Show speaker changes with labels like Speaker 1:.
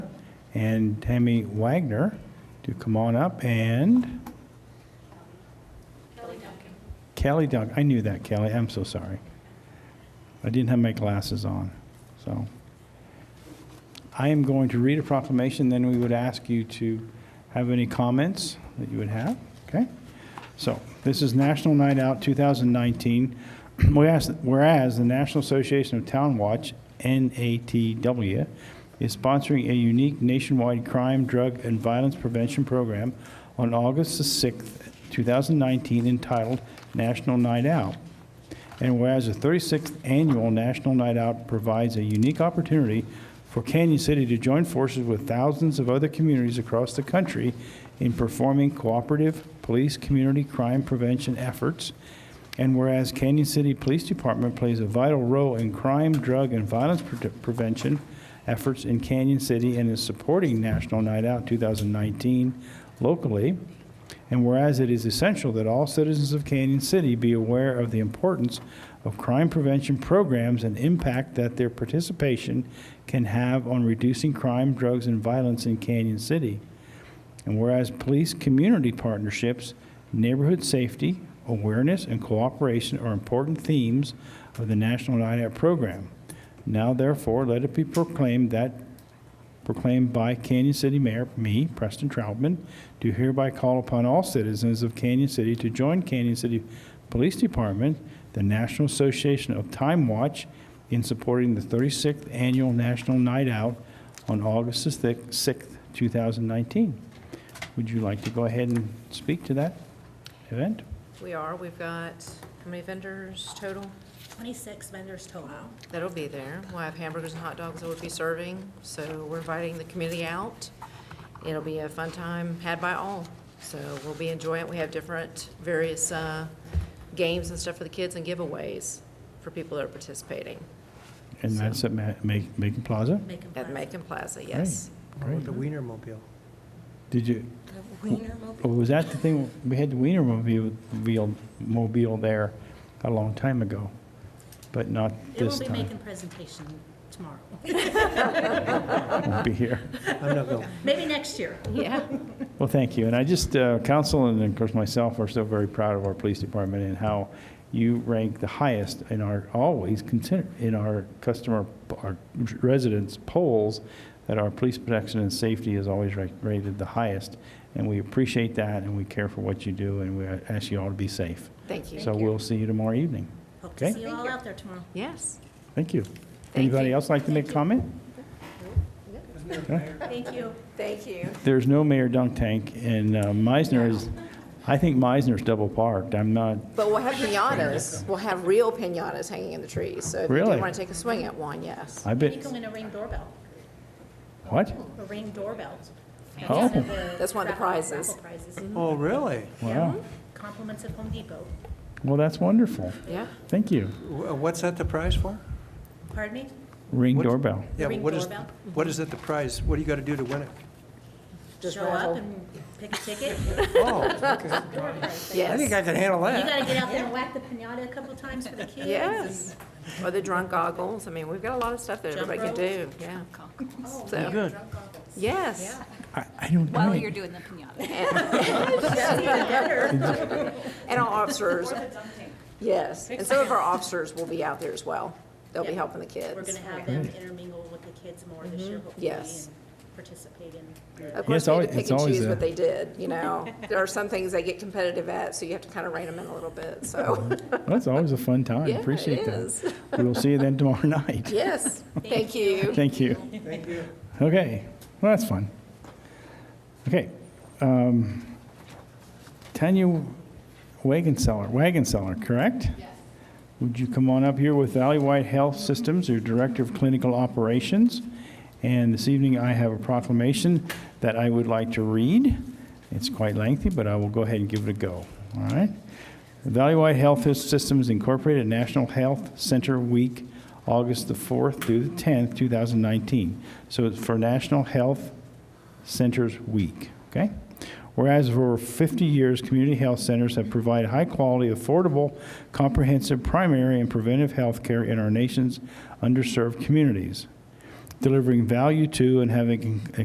Speaker 1: and Tammy Wagner to come on up and Kelly Duncan. I knew that, Kelly. I'm so sorry. I didn't have my glasses on, so. I am going to read a proclamation, then we would ask you to have any comments that you would have, okay? So, this is National Night Out 2019. Whereas whereas the National Association of Town Watch, NATW, is sponsoring a unique nationwide crime, drug, and violence prevention program on August the 6th, 2019, entitled National Night Out. And whereas the 36th Annual National Night Out provides a unique opportunity for Canyon City to join forces with thousands of other communities across the country in performing cooperative police community crime prevention efforts. And whereas Canyon City Police Department plays a vital role in crime, drug, and violence pre- prevention efforts in Canyon City and is supporting National Night Out 2019 locally, and whereas it is essential that all citizens of Canyon City be aware of the importance of crime prevention programs and impact that their participation can have on reducing crime, drugs, and violence in Canyon City. And whereas police community partnerships, neighborhood safety, awareness, and cooperation are important themes of the National Night Out program. Now therefore, let it be proclaimed that proclaimed by Canyon City Mayor, me, Preston Troutman, do hereby call upon all citizens of Canyon City to join Canyon City Police Department, the National Association of Time Watch, in supporting the 36th Annual National Night Out on August the thic- 6th, 2019. Would you like to go ahead and speak to that event?
Speaker 2: We are, we've got, how many vendors total?
Speaker 3: 26 vendors total.
Speaker 2: That'll be there. We'll have hamburgers and hot dogs that we'll be serving, so we're inviting the community out. It'll be a fun time had by all, so we'll be enjoying it. We have different, various uh, games and stuff for the kids and giveaways for people that are participating
Speaker 1: And that's at Ma- Ma- Macon Plaza?
Speaker 3: Make 'em
Speaker 2: at
Speaker 3: proud.
Speaker 2: Macon Plaza, yes.
Speaker 4: Or with the Wienermobile.
Speaker 1: Did you,
Speaker 3: The Wienermobile.
Speaker 1: Oh, was that the thing, we had the Wiener mobile, mobile- mobile there a long time ago, but not
Speaker 3: They
Speaker 1: this
Speaker 3: won't be
Speaker 1: time.
Speaker 3: making presentation tomorrow.
Speaker 1: Won't be here.
Speaker 4: I'm not going.
Speaker 3: Maybe next year.
Speaker 2: Yeah,
Speaker 1: Well, thank you, and I just, uh, council and of course myself are so very proud of our police department and how you rank the highest in our, always consider, in our customer, our residents polls, that our police protection and safety is always ra- rated the highest, and we appreciate that, and we care for what you do, and we ask you all to be safe.
Speaker 2: thank you.
Speaker 1: So we'll see you tomorrow evening.
Speaker 3: Hope
Speaker 1: Okay.
Speaker 3: to see you all out there tomorrow.
Speaker 2: Yes.
Speaker 1: Thank you.
Speaker 2: Thank
Speaker 1: Anybody
Speaker 2: you.
Speaker 1: else like to make a comment?
Speaker 3: Thank you.
Speaker 2: Thank you.
Speaker 1: There's no Mayor Dunk Tank, and uh, Meisner is, I think Meisner's double parked. I'm not,
Speaker 2: But we'll have pinatas. We'll have real pinatas hanging in the trees, so if you
Speaker 1: Really?
Speaker 2: want to take a swing at one, yes.
Speaker 1: I
Speaker 3: You
Speaker 1: bet,
Speaker 3: can win a ring doorbell,
Speaker 1: what?
Speaker 3: a ring doorbell.
Speaker 1: Oh.
Speaker 2: That's one of the
Speaker 3: raffle-
Speaker 2: prizes.
Speaker 3: raffle prizes.
Speaker 4: Oh, really?
Speaker 1: Wow.
Speaker 3: Compliments at Home Depot.
Speaker 1: Well, that's wonderful.
Speaker 2: Yeah.
Speaker 1: Thank you.
Speaker 4: Wh- What's that the prize for?
Speaker 3: Pardon me?
Speaker 1: Ring
Speaker 4: What-
Speaker 1: doorbell.
Speaker 4: Yeah,
Speaker 3: ring
Speaker 4: what is-
Speaker 3: doorbell.
Speaker 4: What is it the prize? What do you got to do to win it?
Speaker 2: Just
Speaker 3: Show up
Speaker 2: raffle.
Speaker 3: and pick a ticket.
Speaker 4: Oh, okay. I think
Speaker 2: Yes.
Speaker 4: I can handle
Speaker 3: You
Speaker 4: that.
Speaker 3: gotta get out there and whack the pinata a couple times for the kids.
Speaker 2: Yes. Or the drunk goggles. I mean, we've got a lot of stuff that
Speaker 3: Jump
Speaker 2: everybody can do, yeah. So,
Speaker 4: Good.
Speaker 2: yes.
Speaker 1: I I don't
Speaker 5: While you're
Speaker 1: know.
Speaker 5: doing the pinata.
Speaker 2: And our officers. Yes. And some of our officers will be out there as well. They'll be
Speaker 3: Yeah.
Speaker 2: helping the
Speaker 3: We're
Speaker 2: kids.
Speaker 3: gonna have them intermingle with the kids more this year, hopefully.
Speaker 2: Mm-hmm. Yes.
Speaker 3: and Participate in.
Speaker 2: Of course,
Speaker 1: it's
Speaker 2: they
Speaker 1: alwa-
Speaker 2: had
Speaker 1: it's
Speaker 2: to pick and
Speaker 1: always
Speaker 2: choose
Speaker 1: a-
Speaker 2: what they did, you know. There are some things they get competitive at, so you have to kind of rein them in a little bit, so.
Speaker 1: That's always a fun time.
Speaker 2: Yeah, it
Speaker 1: Appreciate
Speaker 2: is.
Speaker 1: that. We will see you then tomorrow night.
Speaker 2: Yes, thank you.
Speaker 1: Thank you.
Speaker 4: Thank you.
Speaker 1: Okay, well, that's fun. Okay. um, Tanya Wagon Seller, Wagon Seller, correct? Yes. Would you come on up here with Valley White Health Systems, your Director of Clinical Operations? And this evening, I have a proclamation that I would like to read. It's quite lengthy, but I will go ahead and give it a go, all right? Valley White Health Systems Incorporated National Health Center Week, August the 4th through the 10th, 2019. So it's for National Health Centers Week, okay? Whereas for over 50 years, community health centers have provided high-quality, affordable, comprehensive primary and preventive health care in our nation's underserved communities, delivering value to and having a